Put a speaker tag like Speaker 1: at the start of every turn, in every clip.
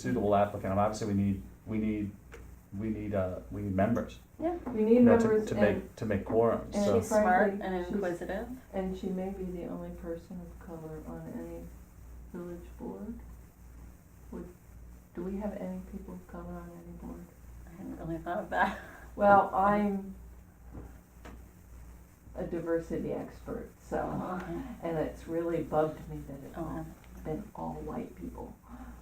Speaker 1: suitable applicant, and obviously we need, we need, we need, uh, we need members.
Speaker 2: Yeah,
Speaker 3: We need
Speaker 1: you know, to-
Speaker 3: members
Speaker 1: To
Speaker 3: and,
Speaker 1: make, to make quorum,
Speaker 3: and
Speaker 1: so,
Speaker 3: she's-
Speaker 2: smart
Speaker 3: Frankly,
Speaker 2: and
Speaker 3: she's-
Speaker 2: inquisitive.
Speaker 3: and she may be the only person of color on any village board. Would, do we have any people of color on any board?
Speaker 2: I hadn't really thought of that.
Speaker 1: Mm.
Speaker 3: Well, I'm a diversity expert, so,
Speaker 2: Oh,
Speaker 3: and it's really bugged me that it's all,
Speaker 2: okay.
Speaker 3: been all white people.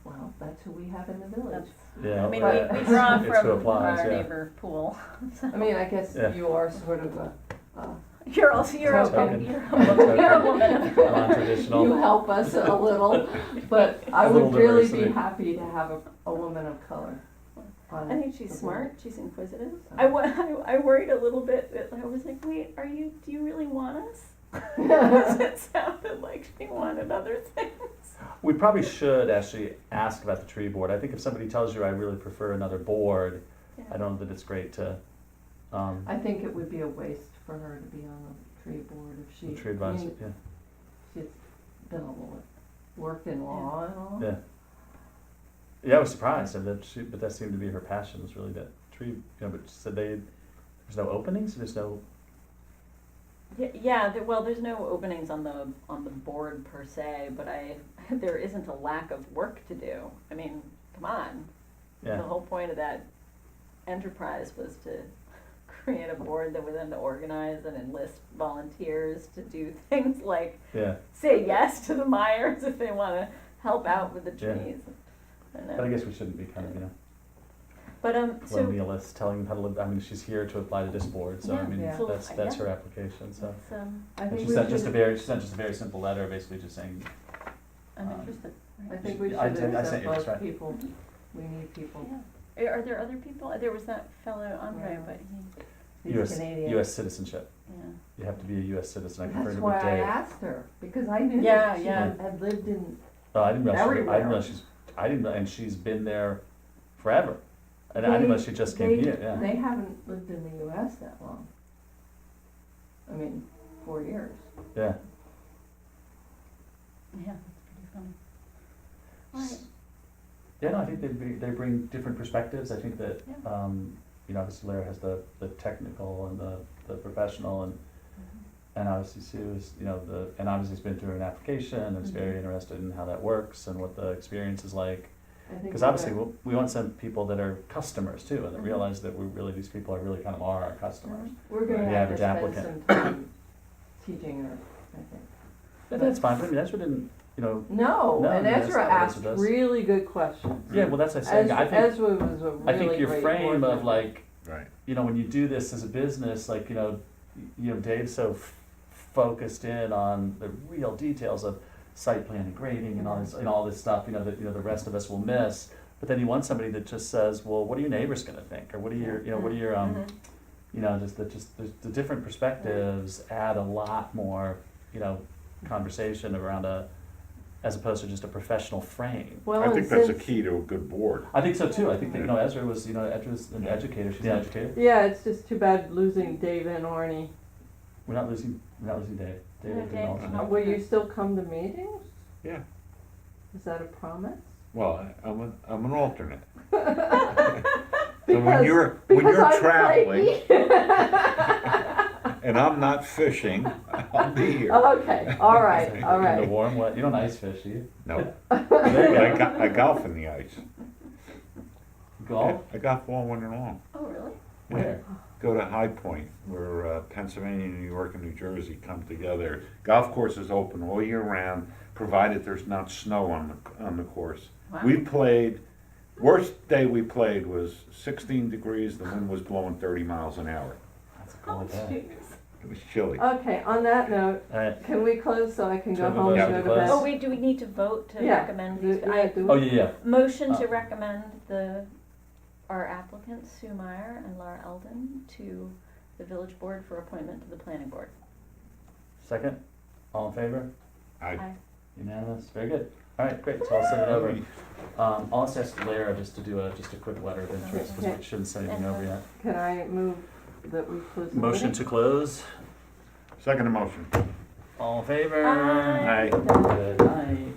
Speaker 3: Well, that's who we have in the village.
Speaker 1: yeah. uh,
Speaker 2: I mean,
Speaker 3: But-
Speaker 2: we, we draw
Speaker 1: It's who
Speaker 2: from
Speaker 1: applies,
Speaker 2: our
Speaker 1: yeah.
Speaker 2: neighbor pool.
Speaker 3: I mean, I guess
Speaker 1: Yeah.
Speaker 3: you are sort of a, uh,
Speaker 2: You're also, you're a,
Speaker 1: Token.
Speaker 2: you're a, you're a woman of
Speaker 3: you
Speaker 1: Non-traditional,
Speaker 3: help us a little, but I
Speaker 1: A
Speaker 3: would
Speaker 1: little
Speaker 3: really be
Speaker 1: diversity.
Speaker 3: happy to have a, a woman of color on
Speaker 2: I think she's
Speaker 3: Okay.
Speaker 2: smart. She's inquisitive.
Speaker 3: So-
Speaker 2: I, wa- I, I worried a little bit. That I was like, wait, are you? Do you really want us? 'Cause it sounded like she wanted other things.
Speaker 1: we probably should actually ask about the tree board, I think if somebody tells you, I really prefer another board, I don't know that it's great to, um,
Speaker 3: I think it would be a waste for her to be on the tree board if she.
Speaker 1: the tree
Speaker 3: I mean,
Speaker 1: advisor, yeah.
Speaker 3: She's been a little, worked in law and all.
Speaker 1: Yeah. Yeah, I was surprised, and that she, but that seemed to be her passion, was really that tree, you know, but she said they, there's no openings, there's no,
Speaker 2: Yeah, yeah. There, well, there's no openings on the on the board per se, but I there isn't a lack of work to do. I mean, come on. The
Speaker 1: yeah,
Speaker 2: whole point of that enterprise was to create a board that would then organize and enlist volunteers to do things like
Speaker 1: yeah.
Speaker 2: say yes to the Myers if they want to help out with the
Speaker 1: Yeah.
Speaker 2: trees. I don't know.
Speaker 1: But I guess we shouldn't be kind of, you know,
Speaker 2: But um, so,
Speaker 1: colonialists telling them how to live, I mean, she's here to apply to this board, so I
Speaker 2: Yeah.
Speaker 1: mean,
Speaker 3: Yeah.
Speaker 1: that's,
Speaker 2: Yeah.
Speaker 1: that's her application, so.
Speaker 2: it's, um,
Speaker 3: I
Speaker 1: And
Speaker 3: think
Speaker 1: she
Speaker 3: we
Speaker 1: sent just a
Speaker 3: should,
Speaker 1: very, she sent just a very simple letter, basically just saying,
Speaker 2: I'm
Speaker 1: Um,
Speaker 2: interested.
Speaker 3: I think we should
Speaker 1: I did- I sent
Speaker 3: accept
Speaker 1: you this,
Speaker 3: both
Speaker 1: right.
Speaker 3: people. We need people,
Speaker 2: Yeah. Eh, Are are there other people? There was that fellow Andre,
Speaker 3: Yeah.
Speaker 2: but he,
Speaker 3: these
Speaker 1: US,
Speaker 3: Canadians.
Speaker 1: US citizenship,
Speaker 2: yeah.
Speaker 1: you have to be a US citizen, I
Speaker 3: That's
Speaker 1: confirmed it
Speaker 3: why
Speaker 1: with
Speaker 3: I
Speaker 1: Dave.
Speaker 3: asked her, because I knew
Speaker 2: Yeah,
Speaker 3: that she
Speaker 2: yeah.
Speaker 3: had lived in,
Speaker 1: Oh, I didn't realize, she- I
Speaker 3: Everywhere.
Speaker 1: didn't realize she's, I didn't, real- and she's been there forever, and I didn't
Speaker 3: They-
Speaker 1: realize she just
Speaker 3: they-
Speaker 1: came here, yeah,
Speaker 3: they haven't lived in the US that long. I mean, four years.
Speaker 1: yeah.
Speaker 2: Yeah, that's pretty funny. All right.
Speaker 1: Yeah, no, I think they bring, they bring different perspectives. I think that,
Speaker 2: Yeah.
Speaker 1: um, you know, obviously Larry has the, the technical and the, the professional and, and obviously Sue is, you know, the, and obviously has been through an application and
Speaker 3: Mm-hmm.
Speaker 1: is very interested in how that works and what the experience is like.
Speaker 3: I think
Speaker 1: Because
Speaker 3: we Mm-hmm.
Speaker 1: obviously
Speaker 3: got-
Speaker 1: we, we want some people that are customers too and that
Speaker 2: Mhm.
Speaker 1: realize that we really, these people are really kind of are our customers.
Speaker 3: We're gonna
Speaker 1: the
Speaker 3: have to
Speaker 1: average
Speaker 3: spend some time teaching her, I think.
Speaker 1: And that's fine, but I mean, that's what didn't, you know,
Speaker 3: No,
Speaker 1: No,
Speaker 3: and
Speaker 1: that's
Speaker 3: Ezra
Speaker 1: not what Ezra
Speaker 3: asked
Speaker 1: does.
Speaker 3: really good questions.
Speaker 1: yeah, well, that's what I'm saying.
Speaker 3: Ezra,
Speaker 1: I think,
Speaker 3: Ezra was a Mm-hmm. really
Speaker 1: I
Speaker 3: great.
Speaker 1: think your
Speaker 3: board
Speaker 1: frame of
Speaker 3: member.
Speaker 1: like,
Speaker 4: Right.
Speaker 1: you know, when you do this as a business, like, you know, you know, Dave's so f- focused in on the real details of site plan and grading and all this and all this stuff, you know, that you know the rest of us will miss. But then you want somebody that just says, well, what are your neighbors going to think, or what are your, you know, what are your, um,
Speaker 2: Mhm.
Speaker 1: you know, just the just the, the different perspectives add a lot more, you know, conversation around a, as opposed to just a professional frame.
Speaker 3: Well,
Speaker 4: I
Speaker 3: and
Speaker 4: think that's a
Speaker 3: since-
Speaker 4: key to a good board.
Speaker 1: I think so too. I think that you know Ezra was, you know, Ezra's an educator. She's
Speaker 4: Yeah.
Speaker 1: an educator.
Speaker 3: Yeah, it's just too bad losing Dave and Arnie.
Speaker 1: We're not losing. We're not losing Dave. Dave
Speaker 2: No,
Speaker 1: is an
Speaker 2: Dave.
Speaker 1: alternate.
Speaker 3: Uh, Will you still come to meetings?
Speaker 4: Yeah.
Speaker 3: Is that a promise?
Speaker 4: Well, I- I'm an, I'm an alternate. So when
Speaker 3: Because-
Speaker 4: you're, when
Speaker 3: because
Speaker 4: you're
Speaker 3: I'm
Speaker 4: traveling
Speaker 3: flaky.
Speaker 4: and I'm not fishing, I'll be
Speaker 3: Oh.
Speaker 4: here.
Speaker 3: Okay, all right, all
Speaker 1: In the
Speaker 3: right.
Speaker 1: warm wet. You don't ice fish, do you?
Speaker 4: No,
Speaker 1: There
Speaker 4: but I,
Speaker 1: you
Speaker 4: go- I golf in the ice.
Speaker 1: go. Golf?
Speaker 4: I golf all winter long.
Speaker 2: Oh, really?
Speaker 1: Where?
Speaker 4: Go to High Point, where uh, Pennsylvania, New York, and New Jersey come together. Golf course is open all year round, provided there's not snow on the, on the course.
Speaker 2: Wow.
Speaker 4: We played, worst day we played was 16 degrees, the wind was blowing 30 miles an hour.
Speaker 1: That's a
Speaker 2: Oh,
Speaker 1: cool idea.
Speaker 2: jeez.
Speaker 4: It was chilly.
Speaker 3: Okay, on that note,
Speaker 1: All right.
Speaker 3: can we close so I can go
Speaker 1: Trevor,
Speaker 3: home
Speaker 4: yeah,
Speaker 3: and go to
Speaker 1: we
Speaker 3: bed?
Speaker 1: close.
Speaker 2: Oh, wait, do we need to vote to
Speaker 3: Yeah.
Speaker 2: recommend
Speaker 3: Do-
Speaker 2: these?
Speaker 3: yeah,
Speaker 2: I,
Speaker 3: do-
Speaker 1: Oh yeah, yeah.
Speaker 2: motion to
Speaker 1: Uh.
Speaker 2: recommend the, our applicants, Sue Meyer and Laura Eldon, to the village board for appointment to the planning board.
Speaker 1: Second. All in favor?
Speaker 4: I,
Speaker 1: Unanimous. Very good. All right, great. So I'll send it over. Um, I'll just ask Lara just to do a just a quick letter of interest because
Speaker 3: Okay.
Speaker 1: we shouldn't send anything over yet.
Speaker 3: Can I move that we close the meeting?
Speaker 1: Motion to close.
Speaker 4: Second motion.
Speaker 1: All in favor?
Speaker 2: Aye.
Speaker 4: Aye.
Speaker 1: Good night.